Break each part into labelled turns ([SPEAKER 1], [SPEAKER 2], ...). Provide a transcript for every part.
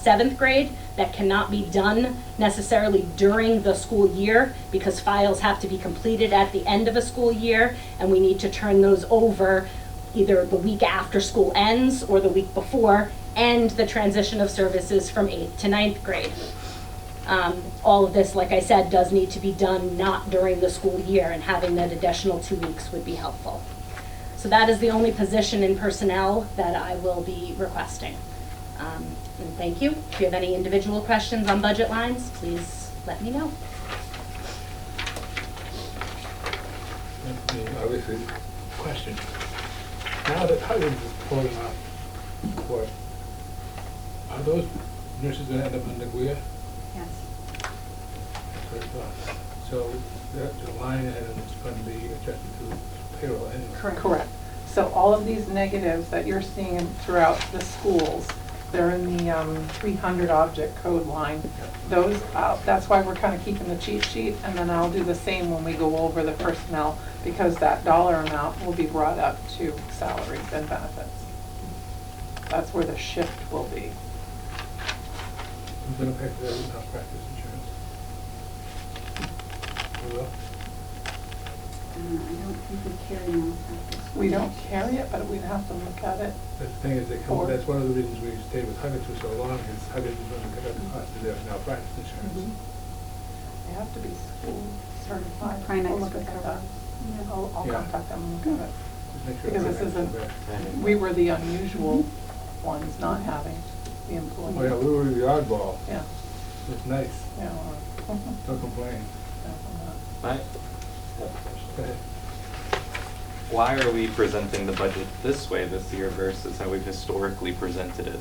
[SPEAKER 1] seventh grade that cannot be done necessarily during the school year because files have to be completed at the end of a school year and we need to turn those over either the week after school ends or the week before and the transition of services from eighth to ninth grade. Um, All of this, like I said, does need to be done not during the school year and having that additional two weeks would be helpful. So that is the only position in personnel that I will be requesting. Um, And thank you. If you have any individual questions on budget lines, please let me know.
[SPEAKER 2] I mean, Obviously, question. Now that Howard is pulling off court, are those nurses gonna end up in Nagoya?
[SPEAKER 3] Yes.
[SPEAKER 2] That's what I thought. So that the line item is gonna be adjusted to payroll anyway.
[SPEAKER 3] Correct.
[SPEAKER 4] So all of these negatives that you're seeing throughout the schools, they're in the um, 300 object code line. Those, uh, that's why we're kind of keeping the cheat sheet, and then I'll do the same when we go over the personnel, because that dollar amount will be brought up to salaries and benefits. That's where the shift will be.
[SPEAKER 2] Who's gonna pay for that malpractice insurance? Who will?
[SPEAKER 3] Uh, I don't think we carry malpractice.
[SPEAKER 4] We don't carry it, but we'd have to look at it.
[SPEAKER 2] The thing is, they come,
[SPEAKER 4] Or-
[SPEAKER 2] that's one of the reasons we stayed with Huggins for so long, is Huggins was gonna cut up the cost of their malpractice
[SPEAKER 4] Mm-hmm.
[SPEAKER 2] insurance.
[SPEAKER 4] They have to be school certified.
[SPEAKER 3] Primex
[SPEAKER 4] We'll look at
[SPEAKER 3] recovers.
[SPEAKER 4] that. I'll I'll
[SPEAKER 2] Yeah.
[SPEAKER 4] contact them and look at it.
[SPEAKER 2] Just make sure.
[SPEAKER 4] Because this
[SPEAKER 2] Huggins
[SPEAKER 4] isn't-
[SPEAKER 2] come back.
[SPEAKER 4] We were the unusual ones not having the
[SPEAKER 2] Oh, yeah,
[SPEAKER 4] employee.
[SPEAKER 2] we were the oddball.
[SPEAKER 4] Yeah,
[SPEAKER 2] It's nice.
[SPEAKER 4] yeah. we're-
[SPEAKER 2] Don't complain.
[SPEAKER 5] I have a
[SPEAKER 2] Go ahead.
[SPEAKER 5] question. Why are we presenting the budget this way this year versus how we've historically presented it?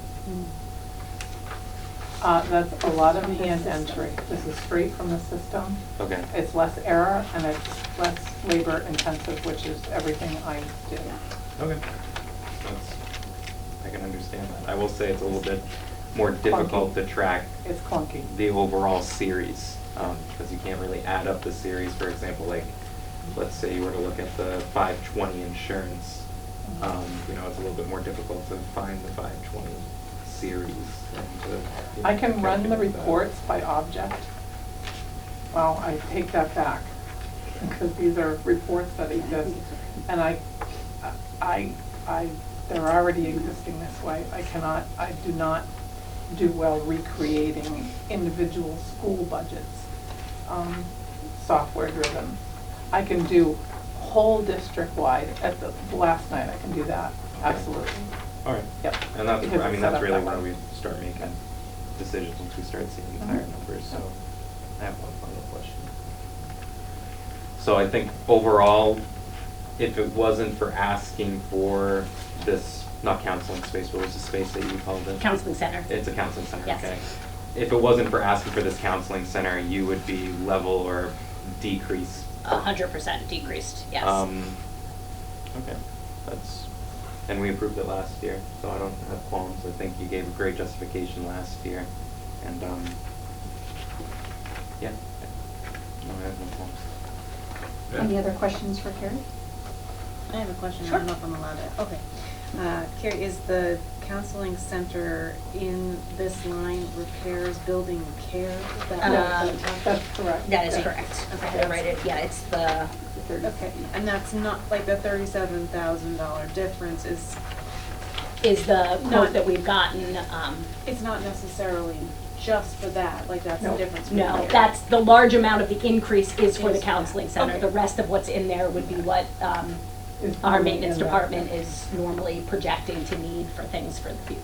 [SPEAKER 4] Uh, That's a lot of hand entry. This is straight from the system.
[SPEAKER 5] Okay.
[SPEAKER 4] It's less error and it's less labor intensive, which is everything I do.
[SPEAKER 5] Okay. That's, I can understand that. I will say it's a little bit more difficult to track
[SPEAKER 4] It's clunky.
[SPEAKER 5] the overall series, um, because you can't really add up the series, for example, like, let's say you were to look at the five twenty insurance, um, you know, it's a little bit more difficult to find the five twenty series and to. you know,
[SPEAKER 4] I can run the
[SPEAKER 5] calculate that.
[SPEAKER 4] reports by object. Well, I take that back, because these are reports that exist, and I, I, I, they're already existing this way. I cannot, I do not do well recreating individual school budgets, um, software driven. I can do whole district-wide, at the, last night I can do that, absolutely,
[SPEAKER 5] All right.
[SPEAKER 4] yep.
[SPEAKER 5] And that's,
[SPEAKER 4] Because
[SPEAKER 5] I
[SPEAKER 4] it's
[SPEAKER 5] mean,
[SPEAKER 4] set
[SPEAKER 5] that's
[SPEAKER 4] up
[SPEAKER 5] really
[SPEAKER 4] that
[SPEAKER 5] where
[SPEAKER 4] way.
[SPEAKER 5] we start making decisions, once we start seeing the entire
[SPEAKER 4] Mhm.
[SPEAKER 5] numbers, so. I have one final question. So I think overall, if it wasn't for asking for this, not counseling space, what was the space that you called it?
[SPEAKER 1] Counseling Center.
[SPEAKER 5] It's a counseling center,
[SPEAKER 1] Yes.
[SPEAKER 5] okay. If it wasn't for asking for this counseling center, you would be level or decreased
[SPEAKER 1] A hundred percent decreased, yes.
[SPEAKER 5] um, okay, that's, and we approved it last year, so I don't have qualms. I think you gave a great justification last year, and, um, yeah, I- no, I have no qualms.
[SPEAKER 3] Any other questions for Carrie?
[SPEAKER 6] I have a question, I don't know if I'm allowed to, okay. Uh, Carrie, is the counseling center in this line repairs building care? Is that what
[SPEAKER 1] Um,
[SPEAKER 6] we're talking
[SPEAKER 4] That's correct.
[SPEAKER 1] That is correct.
[SPEAKER 6] Okay.
[SPEAKER 1] I had to write it, yeah, it's the,
[SPEAKER 6] about? Okay, and that's not, like, the thirty-seven thousand dollar difference is,
[SPEAKER 1] is the quote
[SPEAKER 6] Not-
[SPEAKER 1] that we've gotten, um,
[SPEAKER 6] it's not necessarily just for that, like, that's the
[SPEAKER 4] No.
[SPEAKER 6] difference. from
[SPEAKER 1] No,
[SPEAKER 6] here.
[SPEAKER 1] that's, the large amount of the increase is for the
[SPEAKER 6] Is-
[SPEAKER 1] counseling center.
[SPEAKER 6] okay.
[SPEAKER 1] The rest of what's in there would be what um,
[SPEAKER 4] Is
[SPEAKER 1] our
[SPEAKER 4] normally
[SPEAKER 1] maintenance
[SPEAKER 4] in there.
[SPEAKER 1] department is normally projecting to need for things for the future.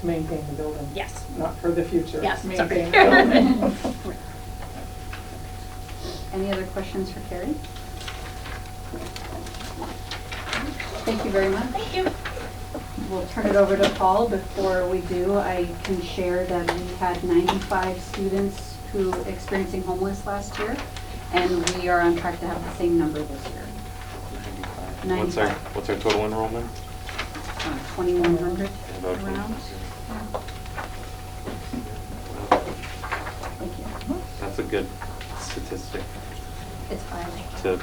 [SPEAKER 4] To maintain the building.
[SPEAKER 1] Yes.
[SPEAKER 4] Not for the future.
[SPEAKER 1] Yes, sorry.
[SPEAKER 4] Maintain the building.
[SPEAKER 3] Any other questions for Carrie? Thank you very much.
[SPEAKER 1] Thank you.
[SPEAKER 3] We'll turn it over to Paul. Before we do, I can share that we had 95 students who were experiencing homeless last year, and we are on track to have the same number this year,
[SPEAKER 5] What's our,
[SPEAKER 3] Ninety-five.
[SPEAKER 5] what's our total enrollment?
[SPEAKER 3] um, 2,100
[SPEAKER 5] About twenty-
[SPEAKER 3] around. Thank you.
[SPEAKER 5] That's a good statistic
[SPEAKER 3] It's five.
[SPEAKER 5] to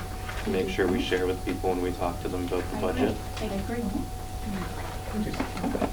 [SPEAKER 5] make sure we share with people when we talk to them about the budget.
[SPEAKER 3] I agree.
[SPEAKER 2] Just